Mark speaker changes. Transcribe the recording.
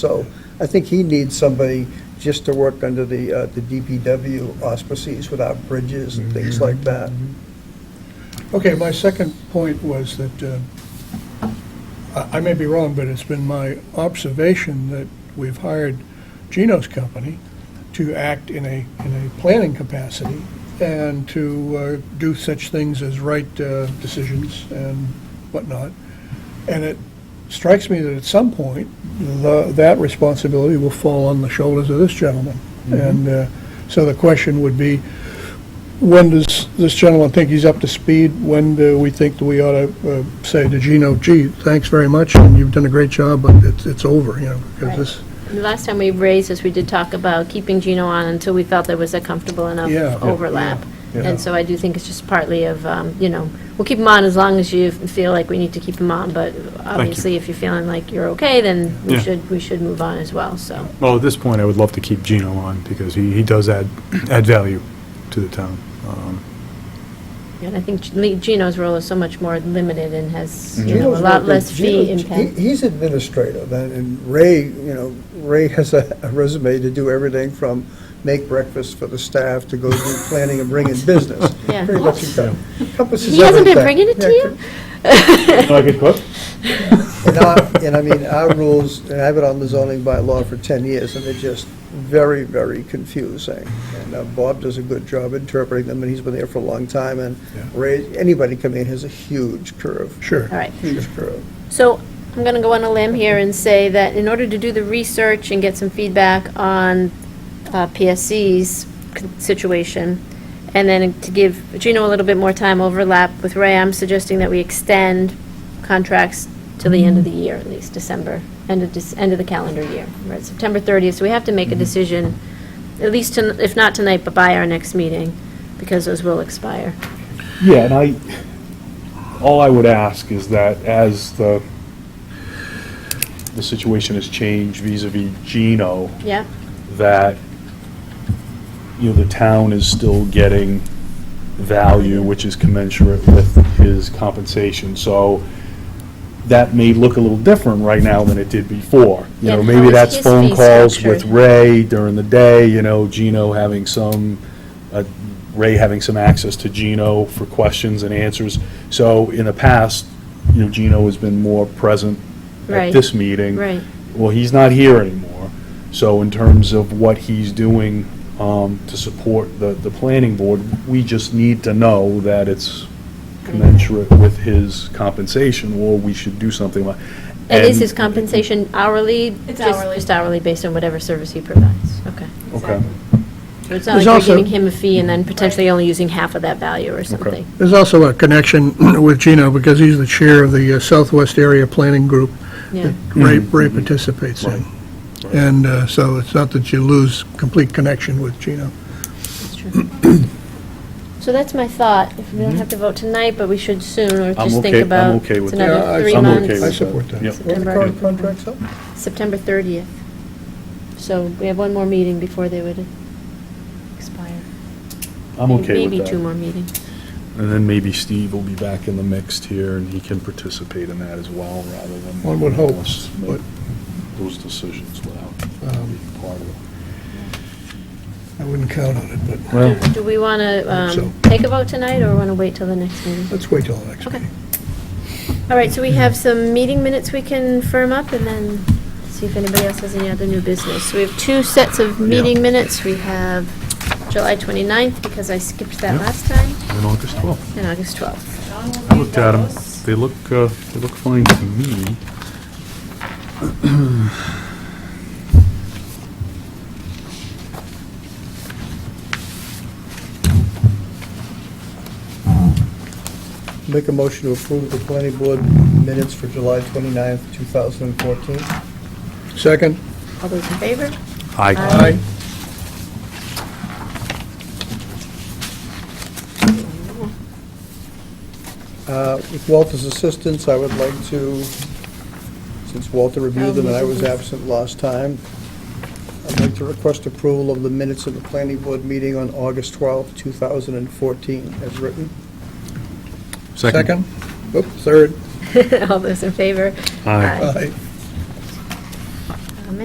Speaker 1: So I think he needs somebody just to work under the, uh, the DPW auspices without bridges and things like that.
Speaker 2: Okay, my second point was that, uh, I I may be wrong, but it's been my observation that we've hired Gino's company to act in a, in a planning capacity and to uh, do such things as right uh, decisions and whatnot. And it strikes me that at some point, the- that responsibility will fall on the shoulders of this gentleman. And uh, so the question would be, when does this gentleman think he's up to speed? When do we think that we ought to uh, say to Gino, gee, thanks very much, and you've done a great job, but it's, it's over, you know, because
Speaker 3: Right.
Speaker 2: this,
Speaker 3: The last time we raised this, we did talk about keeping Gino on until we felt there was a comfortable enough
Speaker 2: Yeah.
Speaker 3: overlap.
Speaker 2: Yeah.
Speaker 3: And so I do think it's just partly of, um, you know, we'll keep him on as long as you feel like we need to keep him on, but obviously, if you're feeling like you're okay, then we
Speaker 4: Yeah.
Speaker 3: should, we should move on as well, so.
Speaker 4: Well, at this point, I would love to keep Gino on, because he, he does add, add value to the town. Um,
Speaker 3: And I think G- Gino's role is so much more limited and has, you know, a
Speaker 1: Gino's
Speaker 3: lot
Speaker 1: working-
Speaker 3: less fee
Speaker 1: Gino's-
Speaker 3: impact.
Speaker 1: he- He's administrative, and- and Ray, you know, Ray has a a resume to do everything from make breakfast for the staff to go do planning and bring in business.
Speaker 3: Yeah.
Speaker 1: Pretty much encom- encompasses everything.
Speaker 3: He hasn't been bringing it to
Speaker 1: Yeah,
Speaker 3: you?
Speaker 1: And our- and I mean, our rules, and I've been on the zoning bylaw for 10 years, and they're just very, very confusing. And uh, Bob does a good job interpreting them, and he's been there for a long time, and Ray, anybody coming in has a huge curve,
Speaker 2: sure.
Speaker 3: All right.
Speaker 1: huge curve.
Speaker 3: So I'm going to go on a limb here and say that in order to do the research and get some feedback on uh, PSC's con- situation, and then to give Gino a little bit more time overlap with Ray, I'm suggesting that we extend contracts till the end of the year, at least December, end of, Dec- end of the calendar year. We're at September 30th, so we have to
Speaker 5: Mm-hmm.
Speaker 3: make a decision, at least, ton- if not tonight, but by our next meeting, because those will expire.
Speaker 5: Yeah, and I, all I would ask is that as the, the situation has changed vis-à-vis Gino,
Speaker 3: Yeah?
Speaker 5: that, you know, the town is still getting value, which is commensurate with his compensation. So that may look a little different right now than it did before. You know,
Speaker 3: And
Speaker 5: maybe
Speaker 3: how is
Speaker 5: that's
Speaker 3: his fee
Speaker 5: phone calls with
Speaker 3: structured?
Speaker 5: Ray during the day, you know, Gino having some, uh, Ray having some access to Gino for questions and answers. So in the past, you know, Gino has been more present
Speaker 3: Right.
Speaker 5: at this meeting.
Speaker 3: Right.
Speaker 5: Well, he's not here anymore. So in terms of what he's doing um, to support the, the planning board, we just need to know that it's commensurate with his compensation, or we should do something like.
Speaker 3: And is his compensation hourly?
Speaker 6: It's
Speaker 3: Just-
Speaker 6: hourly.
Speaker 3: Just hourly, based on whatever service he provides, okay.
Speaker 5: Okay.
Speaker 3: So it's not
Speaker 2: There's
Speaker 3: like you're
Speaker 2: also-
Speaker 3: giving him a fee and then potentially only using half of that value or something.
Speaker 2: There's also a connection with Gino, because he's the chair of the uh, Southwest Area Planning Group
Speaker 3: Yeah,
Speaker 2: that Ray, Ray participates in. And uh, so it's not that you lose complete connection with Gino.
Speaker 3: that's true. So that's my thought. If We don't have to vote tonight, but we should soon, or
Speaker 5: Mm-hmm. I'm
Speaker 3: just think
Speaker 5: okay- I'm
Speaker 3: about.
Speaker 5: okay with
Speaker 3: it's
Speaker 5: that.
Speaker 2: Yeah, I-
Speaker 3: another three
Speaker 5: I'm okay
Speaker 3: months.
Speaker 5: with
Speaker 2: I
Speaker 5: that.
Speaker 2: support that.
Speaker 5: Yep.
Speaker 1: When the
Speaker 3: September.
Speaker 1: current contract's up?
Speaker 3: September 30th. So we have one more meeting before they would expire.
Speaker 5: I'm okay
Speaker 3: Maybe
Speaker 5: with
Speaker 3: two
Speaker 5: that.
Speaker 3: more meetings.
Speaker 5: And then maybe Steve will be back in the mix here, and he can participate in that as well, rather than.
Speaker 2: One would hope,
Speaker 5: us make
Speaker 2: but-
Speaker 5: Those decisions without
Speaker 2: Um,
Speaker 5: being part of it.
Speaker 2: I wouldn't count on it, but
Speaker 5: Well,
Speaker 3: Do we want to
Speaker 2: so.
Speaker 3: take a vote tonight, or want to wait till the next meeting?
Speaker 2: let's wait till the next
Speaker 3: Okay.
Speaker 2: meeting.
Speaker 3: All right, so we have some meeting minutes we can firm up and then see if anybody else has any other new business. So we have two sets of meeting minutes. We have July 29th, because I skipped that
Speaker 4: Yeah.
Speaker 3: last time,
Speaker 4: And August 12th.
Speaker 3: and August 12th.
Speaker 4: I looked at them. They look, uh, they look fine to me.
Speaker 1: Make a motion to approve the planning board minutes for July 29th, 2014.
Speaker 2: Second?
Speaker 3: All those in favor?
Speaker 4: I
Speaker 1: Uh, With Walter's assistance, I would like to, since Walter reviewed them and I was absent last time, I'd like to request approval of the minutes of the planning board meeting on August 12th, 2014, as written.
Speaker 2: Second? Oop, third.
Speaker 3: All those in favor?
Speaker 4: Aye.
Speaker 2: Aye.